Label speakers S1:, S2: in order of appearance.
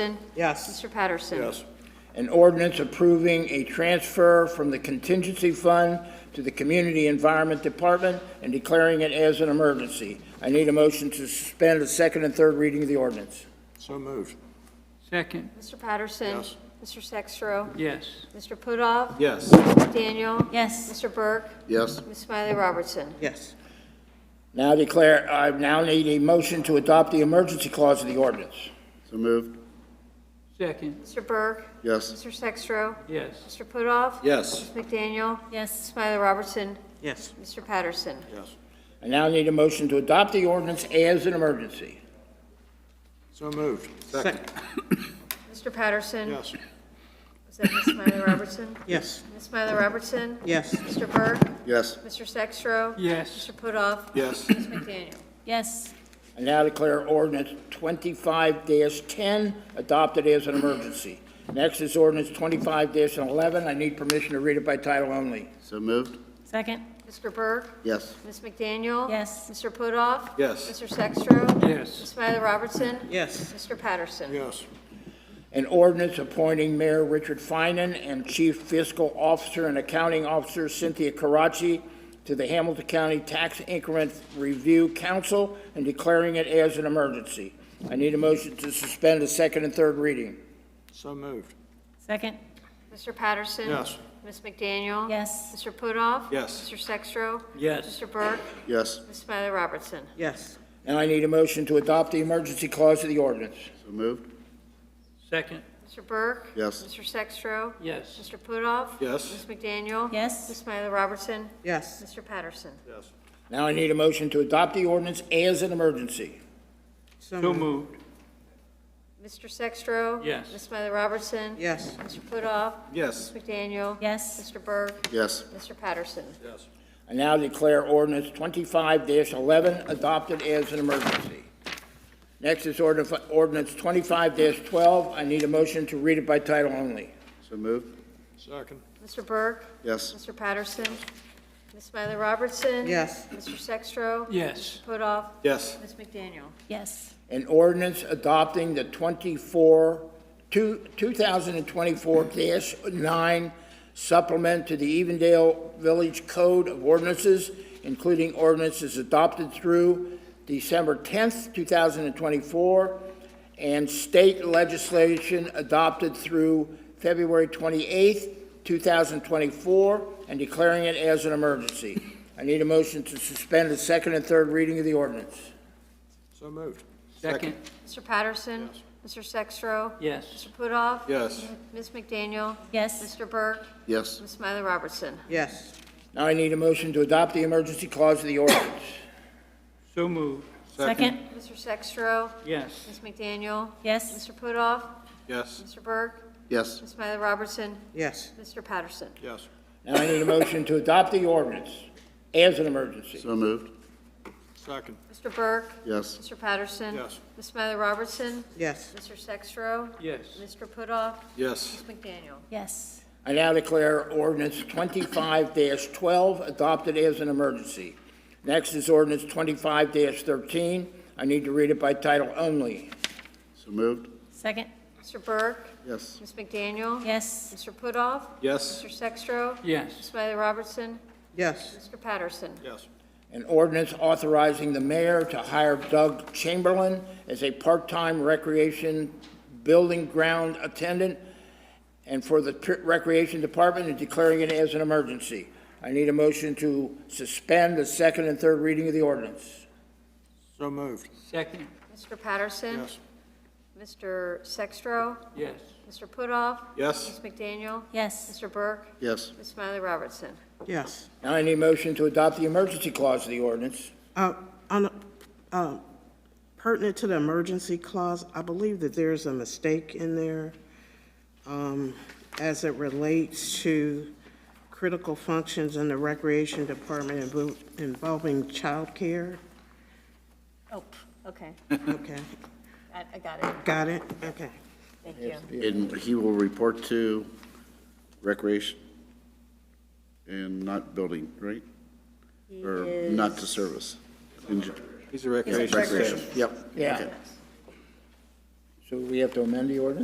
S1: Yes.
S2: Mr. Patterson.
S3: Yes.
S4: An ordinance approving a transfer from the contingency fund to the Community Environment Department and declaring it as an emergency. I need a motion to suspend the second and third reading of the ordinance.
S3: So moved.
S5: Second,
S2: Mr. Patterson.
S3: Yes.
S2: Mr. Sextro.
S5: yes.
S2: Mr. Pudoff.
S3: Yes.
S2: Mr. Daniel.
S6: yes,
S2: Mr. Burke.
S3: Yes.
S2: Ms. Smiley Robertson.
S1: Yes.
S4: Now declare, I now need a motion to adopt the emergency clause of the ordinance.
S3: So moved.
S5: Second,
S2: Mr. Burke.
S3: Yes.
S2: Mr. Sextro.
S5: yes.
S2: Mr. Pudoff.
S3: Yes.
S2: Ms. McDaniel.
S6: yes,
S2: Smiley Robertson.
S1: Yes.
S2: Mr. Patterson.
S3: Yes.
S4: I now need a motion to adopt the ordinance as an emergency.
S3: So moved.
S1: Second.
S2: Mr. Patterson.
S3: Yes.
S2: Was that Ms. Smiley Robertson?
S1: Yes.
S2: Ms. Smiley Robertson.
S1: Yes.
S2: Mr. Burke.
S3: Yes.
S2: Mr. Sextro.
S5: Yes.
S2: Mr. Pudoff.
S3: Yes.
S2: Ms. McDaniel.
S6: yes,
S4: I now declare ordinance twenty-five ten adopted as an emergency. Next is ordinance twenty-five eleven. I need permission to read it by title only.
S3: So moved.
S6: second,
S2: Mr. Burke.
S3: Yes.
S2: Ms. McDaniel.
S6: Yes.
S2: Mr. Pudoff.
S3: Yes.
S2: Mr. Sextro. Ms.
S5: Yes.
S2: Smiley Robertson.
S1: Yes.
S2: Mr. Patterson.
S3: Yes.
S4: An ordinance appointing Mayor Richard Finan and Chief Fiscal Officer and Accounting Officer Cynthia Karachi to the Hamilton County Tax Increment Review Council and declaring it as an emergency. I need a motion to suspend the second and third reading.
S3: So moved.
S6: second,
S2: Mr. Patterson.
S3: Yes.
S2: Ms. McDaniel.
S6: yes,
S2: Mr. Pudoff.
S3: Yes.
S2: Mr. Sextro.
S5: Yes.
S2: Mr. Burke.
S3: Yes.
S2: Ms. Smiley Robertson.
S1: Yes.
S4: Now I need a motion to adopt the emergency clause of the ordinance.
S3: So moved.
S5: Second,
S2: Mr. Burke.
S3: Yes.
S2: Mr. Sextro.
S5: yes.
S2: Mr. Pudoff.
S3: Yes.
S2: Ms. McDaniel. Ms.
S6: yes,
S2: Smiley Robertson.
S1: Yes.
S2: Mr. Patterson.
S3: Yes.
S4: Now I need a motion to adopt the ordinance as an emergency.
S5: So moved,
S2: Mr. Sextro.
S5: Yes.
S2: Ms. Smiley Robertson.
S1: Yes.
S2: Mr. Pudoff.
S3: Yes.
S2: Ms. McDaniel.
S6: yes,
S2: Mr. Burke.
S3: Yes.
S2: Mr. Patterson.
S3: Yes.
S4: I now declare ordinance twenty-five eleven adopted as an emergency. Next is order- ordinance twenty-five twelve. I need a motion to read it by title only.
S3: So moved. Second.
S2: Mr. Burke.
S3: Yes.
S2: Mr. Patterson. Ms. Smiley Robertson.
S1: Yes.
S2: Mr. Sextro.
S5: yes.
S2: Pudoff.
S3: Yes.
S2: Ms. McDaniel.
S6: yes,
S4: An ordinance adopting the twenty-four, two, two thousand and twenty-four nine supplement to the Evendale Village Code of Ordinances, including ordinances adopted through December tenth, two thousand and twenty-four, and state legislation adopted through February 28, 2024, and declaring it as an emergency. I need a motion to suspend the second and third reading of the ordinance.
S3: So moved.
S5: Second,
S2: Mr. Patterson. Mr. Sextro.
S5: yes.
S2: Mr. Pudoff.
S3: Yes.
S2: Ms. McDaniel.
S6: yes,
S2: Mr. Burke.
S3: Yes.
S2: Ms. Smiley Robertson.
S1: Yes.
S4: Now I need a motion to adopt the emergency clause of the ordinance.
S5: So moved,
S6: second,
S2: Mr. Sextro.
S5: yes.
S2: Ms. McDaniel.
S6: yes,
S2: Mr. Pudoff.
S3: Yes.
S2: Mr. Burke.
S3: Yes.
S2: Ms. Smiley Robertson.
S1: Yes.
S2: Mr. Patterson.
S3: Yes.
S4: Now I need a motion to adopt the ordinance as an emergency.
S3: So moved. Second.
S2: Mr. Burke.
S3: Yes.
S2: Mr. Patterson.
S3: Yes.
S2: Ms. Smiley Robertson.
S1: Yes.
S2: Mr. Sextro.
S5: Yes.
S2: Mr. Pudoff.
S3: Yes.
S2: Ms. McDaniel.
S6: yes,
S4: I now declare ordinance twenty-five twelve adopted as an emergency. Next is ordinance twenty-five thirteen. I need to read it by title only.
S3: So moved.
S6: second,
S2: Mr. Burke.
S3: Yes.
S2: Ms. McDaniel.
S6: yes,
S2: Mr. Pudoff.
S3: Yes.
S2: Mr. Sextro. Ms.
S5: Yes.
S2: Smiley Robertson.
S1: Yes.
S2: Mr. Patterson.
S3: Yes.
S4: An ordinance authorizing the mayor to hire Doug Chamberlain as a part-time recreation building ground attendant and for the Tr- Recreation Department and declaring it as an emergency. I need a motion to suspend the second and third reading of the ordinance.
S3: So moved.
S5: Second,
S2: Mr. Patterson.
S3: Yes.
S2: Mr. Sextro.
S5: yes.
S2: Mr. Pudoff.
S3: Yes.
S2: Ms. McDaniel.
S6: yes,
S2: Mr. Burke.
S3: Yes.
S2: Ms. Smiley Robertson.
S1: Yes.
S4: Now I need a motion to adopt the emergency clause of the ordinance.
S1: Uh, On, uh, pertinent to the emergency clause, I believe that there's a mistake in there um, as it relates to critical functions in the Recreation Department invo- involving childcare.
S2: Oh, okay.
S1: Okay,
S2: I I got it.
S1: got it? Okay.
S2: Thank you.
S7: And he will report to recreation and not building, right? Or not to service? He's a recreation. Yep.
S4: Yeah. So we have to amend the ordinance?